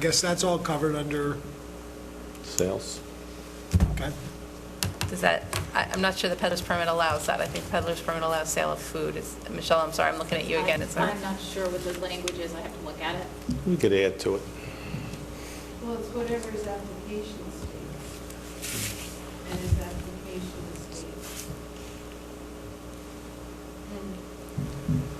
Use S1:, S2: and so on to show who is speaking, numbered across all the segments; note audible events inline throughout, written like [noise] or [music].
S1: I guess that's all covered under,
S2: Sales?
S1: okay,
S3: Does that, I- I'm not sure the peddler's permit allows that. I think peddler's permit allows sale of food. Is- Michelle, I'm sorry, I'm looking at you again. It's not,
S4: I'm not sure what the language is, I have to look at it.
S2: We could add to it.
S5: Well, it's whatever his application states. And his application states. And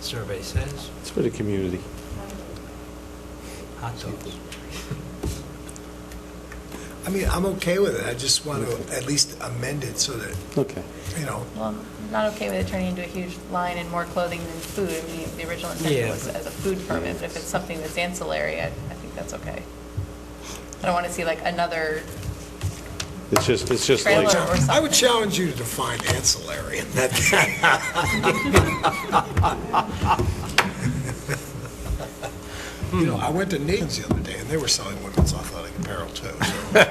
S6: Survey says
S2: It's for the community.
S6: hot dogs.
S1: I mean, I'm okay with it, I just want to at least amend it so that,
S2: Okay.
S1: you know,
S3: well, I'm not okay with it turning into a huge line and more clothing than food. I mean, the original intention
S6: Yeah,
S3: was
S6: but-
S3: as a food permit, but if it's something that's ancillary, I I think that's okay. I don't want to see like another,
S2: It's just, it's just like,
S3: Trailer. or
S1: I would
S3: something.
S1: challenge you to define ancillary in
S3: [laughs]
S1: that, you know, I went to Nathan's the other day, and they were selling women's athletic apparel too, so,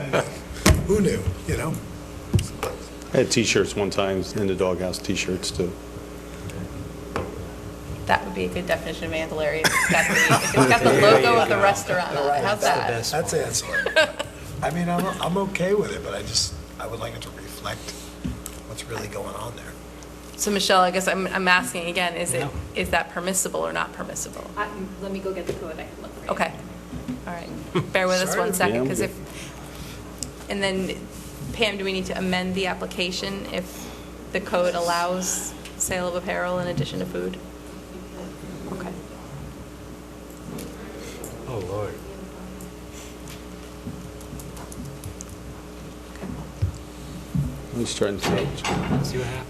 S1: who knew, you know?
S2: I had t-shirts one time, in the doghouse, t-shirts too.
S3: that would be a good definition of ancillary. If It's got the- if it's got the logo of the restaurant on it. How's
S6: That's the
S3: that?
S6: best
S1: That's
S6: one.
S1: ancillary. I mean, I'm, I'm okay with it, but I just, I would like it to reflect what's really going on there.
S3: So Michelle, I guess I'm I'm asking again, is it,
S6: No.
S3: is that permissible or not permissible?
S4: I- Let me go get the code, I can look for you.
S3: Okay, all right. Bear with us
S1: Sorry
S3: one
S1: to
S3: second,
S2: be-
S3: because if, and then Pam, do we need to amend the application if the code allows sale of apparel in addition to food? Okay.
S6: Oh, Lord.
S2: I was starting to throw-
S6: See what happens.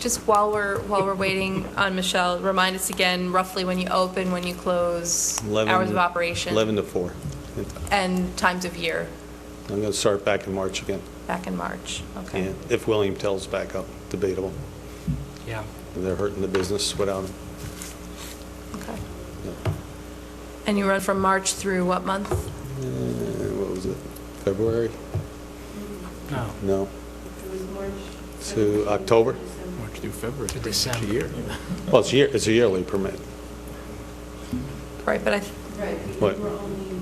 S3: Just while we're, while we're waiting on Michelle, remind us again roughly when you open, when you close,
S2: 11
S3: hours of operation.
S2: 11 to 4. I'm
S3: And times of year,
S2: going to start back in March again.
S3: back in March, okay.
S2: And if William tells back up, debatable.
S6: Yeah.
S2: They're hurting the business without him.
S3: Okay.
S2: Yeah.
S3: And you run from March through what month?
S2: Uh, What was it? February?
S6: No,
S2: No.
S5: it was March.
S2: To October?
S5: December.
S7: March through February.
S6: to December.
S2: Well, it's a year, it's a yearly permit.
S3: Right, but I,
S5: Right,
S2: What?
S5: because we're only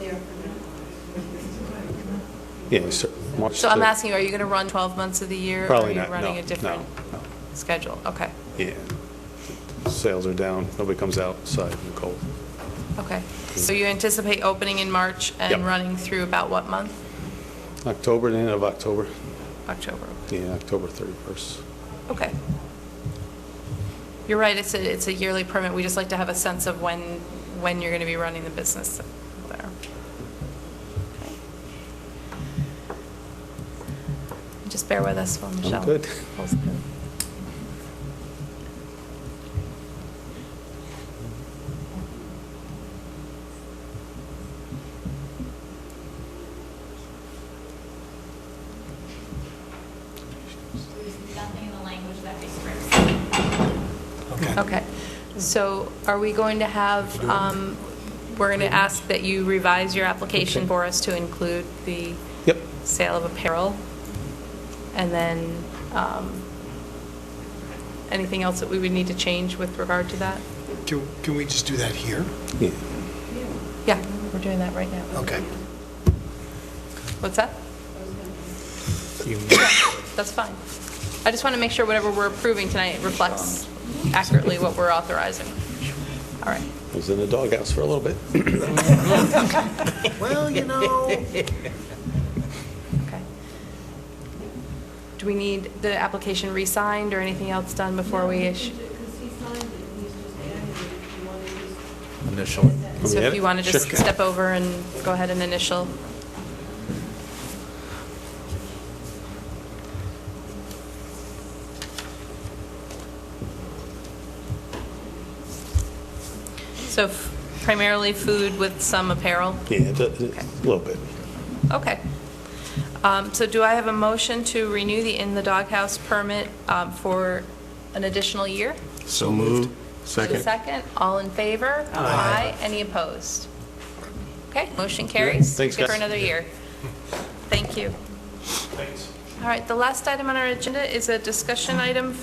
S5: there for now.
S2: Yeah, you start March.
S3: So I'm
S2: to-
S3: asking you, are you going to run 12 months of the year?
S2: Probably not,
S3: Or are you
S2: no,
S3: running a different
S2: no, no.
S3: schedule? Okay,
S2: Yeah. Sales are down, nobody comes outside in the cold.
S3: okay. So you anticipate opening in March and
S2: Yep.
S3: running through about what month?
S2: October, the end of October,
S3: October.
S2: yeah, October 31st.
S3: Okay. You're right, it's a, it's a yearly permit. We just like to have a sense of when, when you're going to be running the business there. Just bear with us while Michelle.
S2: good.
S3: pulls the-
S4: There's nothing in the language that restricts.
S3: Okay, so are we going to have, um, we're going to ask that you revise your application for us to include the
S2: Yep.
S3: sale of apparel? And then um, anything else that we would need to change with regard to that?
S1: Can, can we just do that here?
S2: Yeah.
S3: Yeah, we're doing that right now.
S1: Okay.
S3: What's that?
S6: You
S3: That's fine. I just want to make sure whatever we're approving tonight reflects accurately what we're authorizing. All right.
S2: I was in the doghouse for a little bit.
S1: Well, you know,
S3: Okay. Do we need the application re-signed or anything else done before we issue?
S5: Because he signed it, he's just adding it if you want to just.
S7: Initially.
S3: So
S2: Yeah,
S3: if you want to just
S2: sure.
S3: step over and go ahead and initial. So f- primarily food with some apparel?
S2: Yeah, d- d- a little bit.
S3: Okay. Um, So do I have a motion to renew the In the Doghouse permit um, for an additional year?
S7: So moved.
S3: A second? All in favor? Aye. Any opposed? Okay, motion carries.
S2: Thanks,
S3: Good for
S2: guys.
S3: another year. Thank you. Thanks. All right, the last item on our agenda is a discussion item